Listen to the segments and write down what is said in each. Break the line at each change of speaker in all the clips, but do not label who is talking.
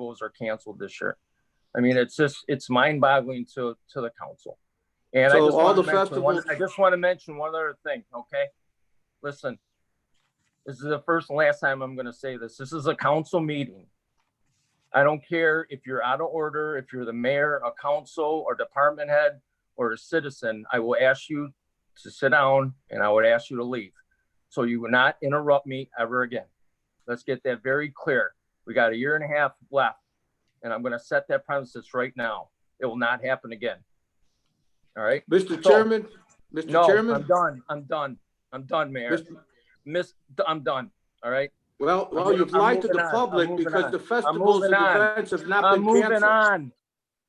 schools are canceled this year. I mean, it's just, it's mind boggling to, to the council. And I
So
just
all
want
the
to mention one, I
festivals-
just want to mention one other thing, okay? Listen, this is the first and last time I'm going to say this. This is a council meeting. I don't care if you're out of order, if you're the mayor, a council or department head or a citizen, I will ask you to sit down and I would ask you to leave. So you will not interrupt me ever again. Let's get that very clear. We got a year and a half left and I'm going to set that premises right now. It will not happen again. All right?
Mr.
So-
Chairman, Mr.
No, I'm
Chairman,
done. I'm done. I'm done, Mayor.
Mr.
Miss, I'm done. All right?
well, well,
I'm
you've
moving
lied to
on.
the
I'm
public
moving
because
on.
the festivals and
moving on.
events have not
I'm
been
moving
canceled.
on.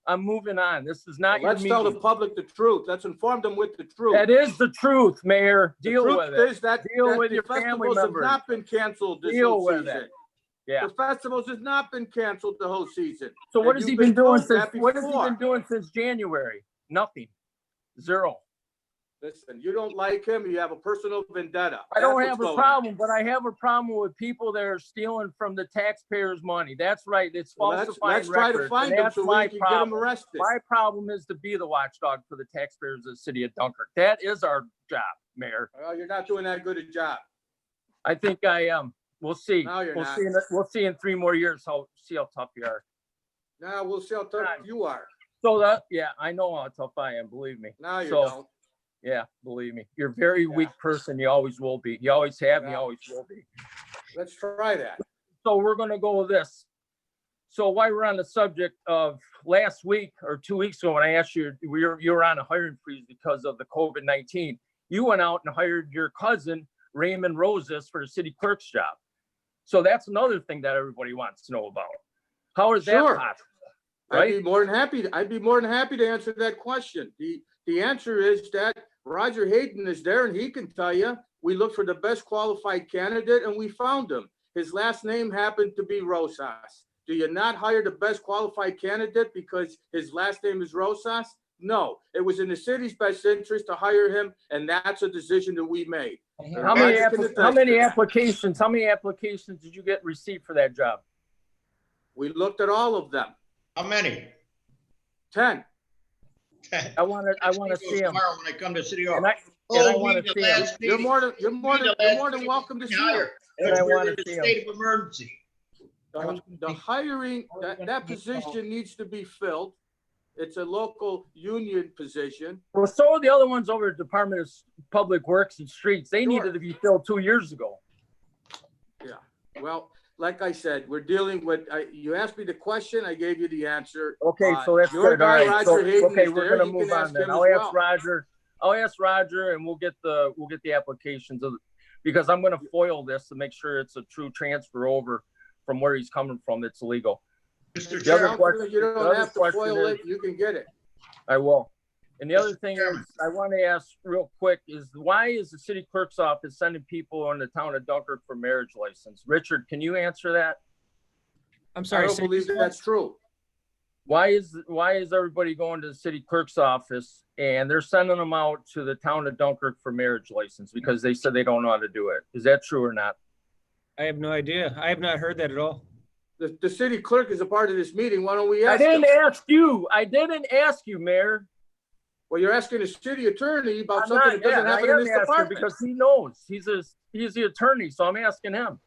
I'm moving on. This is not your
Let's tell the
meeting.
public the truth. Let's inform them with the truth.
That is the truth, Mayor.
The
Deal
truth
with it.
is that,
Deal
that
with
the
your family
festivals have
members.
not been canceled this
Deal
whole
with
season.
it. Yeah.
The festivals has not been canceled the whole season.
So what
and
has
you've
he been
been
doing
told
since,
that
what has he
before.
been doing since January? Nothing. Zero.
Listen, you don't like him, you have a personal vendetta.
I don't
That's
have
what's
a
going on.
problem, but I have a problem with people that are stealing from the taxpayers' money. That's right. It's
Well, Let's,
falsifying
let's try to
records.
find
and
him
That's
so
my
we can get him
problem.
arrested.
My problem is to be the watchdog for the taxpayers of the city of Dunkirk. That is our job, Mayor.
Well, you're not doing that good a job.
I think I am. We'll see.
No, you're
We'll
not.
see, in- we'll see in three more years how, see how tough you are.
Now we'll see how tough
Right.
you are.
So that, yeah, I know how tough I am, believe me.
Now you
So,
don't.
Yeah, believe me. You're a very
Yeah.
weak person. You always will be. You always have, you
Yeah.
always will be.
Let's try that.
So we're gonna go with this. So while we're on the subject of last week or two weeks ago, when I asked you, we were, you were on a hiring freeze because of the COVID nineteen. You went out and hired your cousin Raymond Roses for the city clerk's job. So that's another thing that everybody wants to know about. How is that
Sure.
possible?
I'd
Right?
be more than happy, I'd be more than happy to answer that question. The, the answer is that Roger Hayden is there and he can tell you, we looked for the best qualified candidate and we found him. His last name happened to be Rosas. Do you not hire the best qualified candidate because his last name is Rosas? No, it was in the city's best interest to hire him and that's a decision that we made.
How many,
Roger can
appli- how many
attest to that.
applications, how many applications did you get received for that job?
We looked at all of them,
How many?
ten.
I wanna, I wanna see them.
Tomorrow when I come to City Hall. Oh,
And I, and I wanna see them.
You're more than, you're more than, you're more than welcome to see him.
And I
But we're
wanna
in a
see 'em.
state of emergency.
The the hiring, that, that position needs to be filled. It's a local union position.
Well, so are the other ones over at Department of S- Public Works and Streets. They needed
Sure.
to be filled two years ago.
Well, like I said, we're dealing with, I, you asked me the question, I gave you the answer.
Okay,
Uh,
so that's
your
good. All
guy,
right. So,
Roger Hayden,
okay,
is
we're
there.
gonna
You can
move on
ask
then.
him
I'll
as
ask
well.
Roger, I'll ask Roger and we'll get the, we'll get the applications of, because I'm gonna foil this to make sure it's a true transfer over from where he's coming from. It's legal.
Mr.
The other
Chair,
question-
You
the
don't
other
have to
question
foil
is-
it, you can get it.
I will. And the other
Mr.
thing is,
Chairman.
I want to ask real quick is why is the city clerk's office sending people in the town of Dunkirk for marriage license? Richard, can you answer that?
I'm
I
sorry.
don't
say-
believe that's true.
why is why is everybody going to the city clerk's office and they're sending them out to the town of Dunkirk for marriage license because they said they don't know how to do it? Is that true or not?
I have no idea. I have not heard that at all.
The, the city clerk is a part of this meeting, why don't we
I
ask him?
didn't ask you. I didn't ask you, Mayor.
Well, you're asking the city attorney about
I'm
something
not,
that
yeah,
doesn't
I
happen in
am
this
asking
department.
because he knows. He's a he's the attorney, so I'm asking him.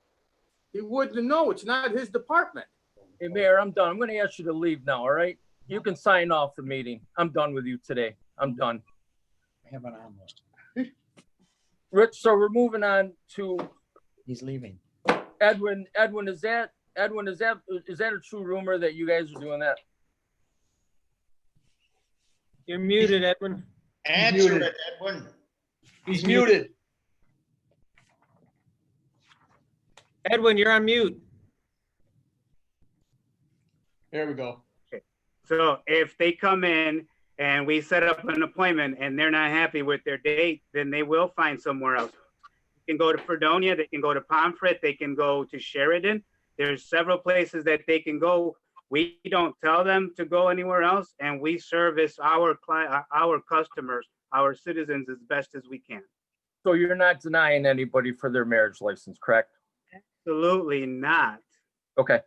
He wouldn't know, it's not his department.
Hey, Mayor, I'm done. I'm gonna ask you to leave now, all right? You can sign off the meeting. I'm done with you today. I'm done.
I have an arm list.
Rich, so we're moving on to
He's leaving.
Edwin. Edwin, is that Edwin, is that is that a true rumor that you guys are doing that?
You're muted, Edwin.
answer it, Edwin. He's muted.
Edwin, you're on mute.
There we go.
So if they come in and we set up an appointment and they're not happy with their date, then they will find somewhere else. They can go to Fredonia, they can go to Pomfret, they can go to Sheridan. There's several places that they can go. We don't tell them to go anywhere else and we service our client, our customers, our citizens as best as we can.
So you're not denying anybody for their marriage license, correct?
Absolutely not.
Okay,